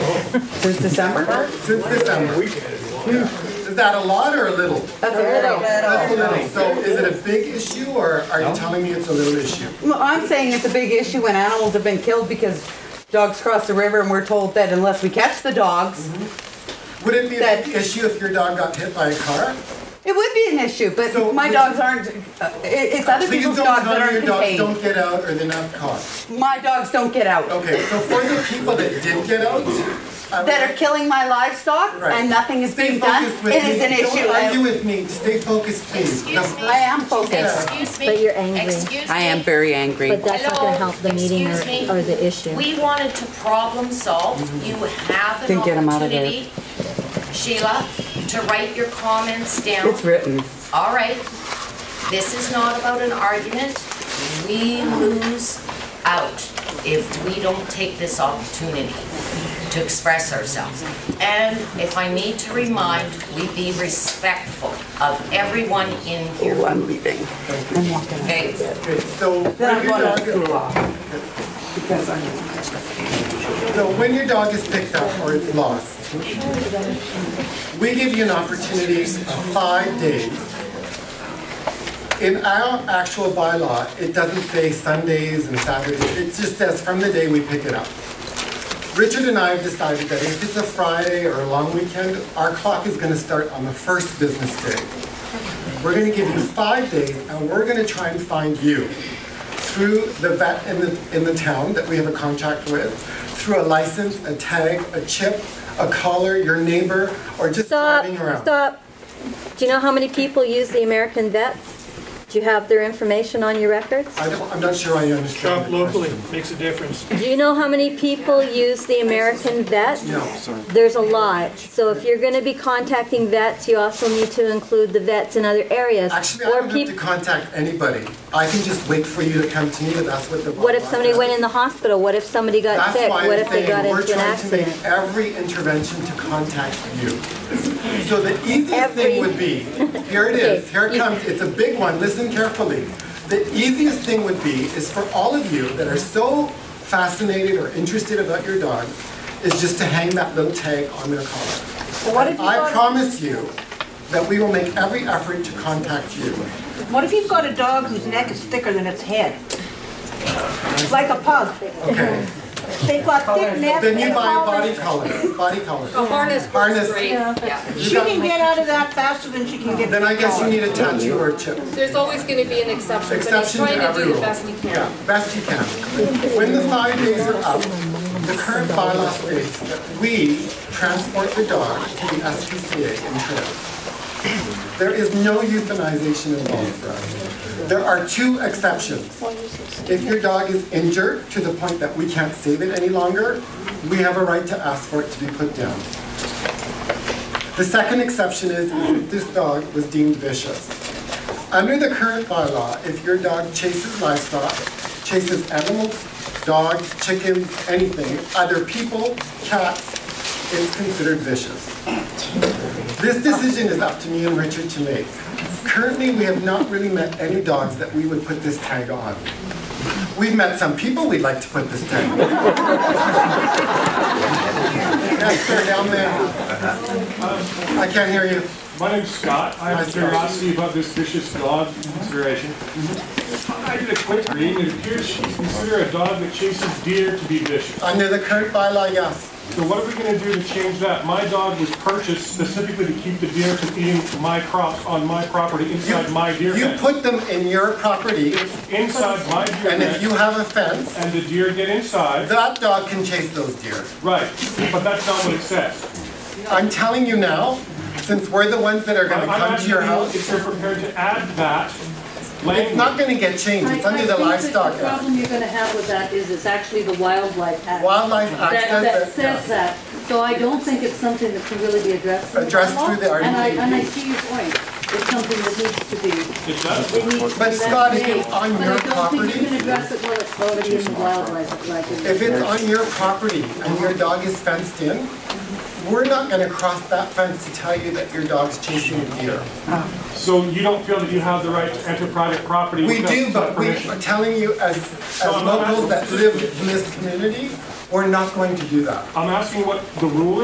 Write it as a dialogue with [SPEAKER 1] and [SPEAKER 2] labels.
[SPEAKER 1] Since December?
[SPEAKER 2] Since December. Is that a lot or a little?
[SPEAKER 1] That's a little.
[SPEAKER 2] That's a little. So is it a big issue or are you telling me it's a little issue?
[SPEAKER 1] Well, I'm saying it's a big issue when animals have been killed because dogs cross the river and we're told that unless we catch the dogs,
[SPEAKER 2] Mm-hmm. Would it be a
[SPEAKER 1] That-
[SPEAKER 2] big issue if your dog got hit by a car?
[SPEAKER 1] it would be an issue,
[SPEAKER 2] So
[SPEAKER 1] but my
[SPEAKER 2] would
[SPEAKER 1] dogs
[SPEAKER 2] you-
[SPEAKER 1] aren't, uh, it- it's other
[SPEAKER 2] Please
[SPEAKER 1] people's
[SPEAKER 2] don't
[SPEAKER 1] dogs that
[SPEAKER 2] tell me
[SPEAKER 1] aren't
[SPEAKER 2] your dogs
[SPEAKER 1] contained.
[SPEAKER 2] don't get out or they're not caught.
[SPEAKER 1] My dogs don't get out.
[SPEAKER 2] Okay, so for the people that did get out. I
[SPEAKER 1] That
[SPEAKER 2] would-
[SPEAKER 1] are killing my livestock
[SPEAKER 2] Right.
[SPEAKER 1] and nothing is
[SPEAKER 2] Stay
[SPEAKER 1] being done,
[SPEAKER 2] focused with
[SPEAKER 1] it is
[SPEAKER 2] me.
[SPEAKER 1] an
[SPEAKER 2] Don't argue
[SPEAKER 1] issue.
[SPEAKER 2] with me, stay focused please. The
[SPEAKER 3] Excuse me.
[SPEAKER 1] I am focused.
[SPEAKER 3] Excuse me.
[SPEAKER 4] But you're angry.
[SPEAKER 3] Excuse
[SPEAKER 1] I am
[SPEAKER 3] me.
[SPEAKER 1] very angry.
[SPEAKER 4] But that's not gonna help the meeting or,
[SPEAKER 3] Excuse me.
[SPEAKER 4] or the issue.
[SPEAKER 3] We wanted to problem solve. You have an
[SPEAKER 1] Didn't get 'em out of there.
[SPEAKER 3] opportunity, Sheila, to write your comments down.
[SPEAKER 1] It's written.
[SPEAKER 3] All right, this is not about an argument. We lose out if we don't take this opportunity to express ourselves. And if I need to remind, we be respectful of everyone in here.
[SPEAKER 1] Oh, I'm leaving. I'm walking out.
[SPEAKER 3] Okay.
[SPEAKER 2] Okay, So
[SPEAKER 1] Then
[SPEAKER 2] when
[SPEAKER 1] I'm
[SPEAKER 2] your
[SPEAKER 1] gonna
[SPEAKER 2] dog,
[SPEAKER 1] cool off. Because I'm.
[SPEAKER 2] so when your dog is picked up or it's lost, we give you an opportunity of five days. In our actual bylaw, it doesn't say Sundays and Saturdays, it just says from the day we pick it up. Richard and I have decided that if it's a Friday or a long weekend, our clock is gonna start on the first business day. We're gonna give you five days, and we're gonna try and find you through the vet in the, in the town that we have a contract with, through a license, a tag, a chip, a collar, your neighbor, or just
[SPEAKER 4] Stop,
[SPEAKER 2] driving around.
[SPEAKER 4] stop. Do you know how many people use the American vets? Do you have their information on your records?
[SPEAKER 2] I don't, I'm not sure I
[SPEAKER 5] Shop
[SPEAKER 2] understand. the
[SPEAKER 5] locally,
[SPEAKER 2] question.
[SPEAKER 5] makes a difference.
[SPEAKER 4] Do you know how many people use the American vets?
[SPEAKER 2] No, sorry.
[SPEAKER 4] There's a lot. So if you're gonna be contacting vets, you also need to include the vets in other areas.
[SPEAKER 2] Actually, I
[SPEAKER 4] Or
[SPEAKER 2] don't have to
[SPEAKER 4] people,
[SPEAKER 2] contact anybody. I can just wait for you to come to me, but that's what the.
[SPEAKER 4] what if somebody
[SPEAKER 2] bylaw
[SPEAKER 4] went
[SPEAKER 2] says.
[SPEAKER 4] in the hospital? What if somebody got
[SPEAKER 2] That's
[SPEAKER 4] sick?
[SPEAKER 2] why
[SPEAKER 4] What
[SPEAKER 2] I'm
[SPEAKER 4] if they got
[SPEAKER 2] saying we're
[SPEAKER 4] into an
[SPEAKER 2] trying to
[SPEAKER 4] accident?
[SPEAKER 2] make every intervention to contact you. So the easiest
[SPEAKER 4] Every-
[SPEAKER 2] thing would be, here it is,
[SPEAKER 4] Okay,
[SPEAKER 2] here it
[SPEAKER 4] you-
[SPEAKER 2] comes, it's a big one, listen carefully. The easiest thing would be is for all of you that are so fascinated or interested about your dog, is just to hang that little tag on their collar.
[SPEAKER 6] What if, you've
[SPEAKER 2] I
[SPEAKER 6] got,
[SPEAKER 2] promise you that we will make every effort to contact you.
[SPEAKER 6] what if you've got a dog whose neck is thicker than its head? Like a pug.
[SPEAKER 2] Okay.
[SPEAKER 6] They've got thick necks
[SPEAKER 2] Then you
[SPEAKER 6] and
[SPEAKER 2] buy a body
[SPEAKER 6] collars.
[SPEAKER 2] collar, body collar.
[SPEAKER 3] harness
[SPEAKER 2] Harness. great.
[SPEAKER 3] Yeah.
[SPEAKER 2] You
[SPEAKER 6] She
[SPEAKER 2] got-
[SPEAKER 6] can get out of that faster than she can get.
[SPEAKER 2] Then I guess you
[SPEAKER 6] collar.
[SPEAKER 2] need a tattoo or a chip.
[SPEAKER 7] There's always going to be an exception, but he's
[SPEAKER 2] Exception to
[SPEAKER 7] trying to
[SPEAKER 2] every
[SPEAKER 7] do the
[SPEAKER 2] rule.
[SPEAKER 7] best he can.
[SPEAKER 2] Yeah, best you can. When the five days are up, the current bylaw states that we transport the dog to the SPCA in Toronto. There is no euthanization involved for us. There are two exceptions. If your dog is injured to the point that we can't save it any longer, we have a right to ask for it to be put down. The second exception is if this dog was deemed vicious. Under the current bylaw, if your dog chases livestock, chases animals, dogs, chickens, anything, other people, cats, it's considered vicious. This decision is up to me and Richard to make. Currently, we have not really met any dogs that we would put this tag on. We've met some people we'd like to put this tag on. Yes, sir, down there. I can't hear you.
[SPEAKER 8] My name's Scott. I
[SPEAKER 2] Hi,
[SPEAKER 8] have a
[SPEAKER 2] Scott.
[SPEAKER 8] curiosity about this vicious dog consideration. I did a quick reading. It appears she's considered a dog that chases deer to be vicious.
[SPEAKER 2] Under the current bylaw, yes.
[SPEAKER 8] So what are we going to do to change that? My dog was purchased specifically to keep the deer from eating my crops on my property inside my deer
[SPEAKER 2] You
[SPEAKER 8] fence.
[SPEAKER 2] put them in your property,
[SPEAKER 8] Inside my deer
[SPEAKER 2] and if you
[SPEAKER 8] fence,
[SPEAKER 2] have a fence,
[SPEAKER 8] and the deer get inside.
[SPEAKER 2] that dog can chase those deer.
[SPEAKER 8] Right, but that's not what it says.
[SPEAKER 2] I'm telling you now, since we're the ones that are
[SPEAKER 8] I'm
[SPEAKER 2] gonna come to your
[SPEAKER 8] asking you
[SPEAKER 2] house,
[SPEAKER 8] if you're prepared to add that
[SPEAKER 2] it's not
[SPEAKER 8] language.
[SPEAKER 2] gonna get changed, it's under the Livestock
[SPEAKER 9] The
[SPEAKER 2] Act.
[SPEAKER 9] problem you're gonna have with that is it's actually the Wildlife Act.
[SPEAKER 2] Wildlife Act
[SPEAKER 9] that- That
[SPEAKER 2] says
[SPEAKER 9] says
[SPEAKER 2] that.
[SPEAKER 9] that, so I don't think it's something that can really be addressed. in
[SPEAKER 2] Addressed through the E
[SPEAKER 9] law. And I,
[SPEAKER 2] RDP.
[SPEAKER 9] and I see your point, it's something that needs to be,
[SPEAKER 8] It does.
[SPEAKER 9] it needs to be.
[SPEAKER 2] But Scott, if it's
[SPEAKER 9] vetted.
[SPEAKER 2] on your
[SPEAKER 9] But I don't think you
[SPEAKER 2] property-
[SPEAKER 9] can address it while it's already in the Wildlife Act.
[SPEAKER 2] If it's on your property and your dog is fenced in, we're not gonna cross that fence to tell you that your dog's chasing a deer.
[SPEAKER 8] So you don't feel that you have the right to enter private property
[SPEAKER 2] We
[SPEAKER 8] without
[SPEAKER 2] do, but we
[SPEAKER 8] permission?
[SPEAKER 2] are telling you as, as locals that live in this community, We're not going to do that.
[SPEAKER 8] I'm asking what the rule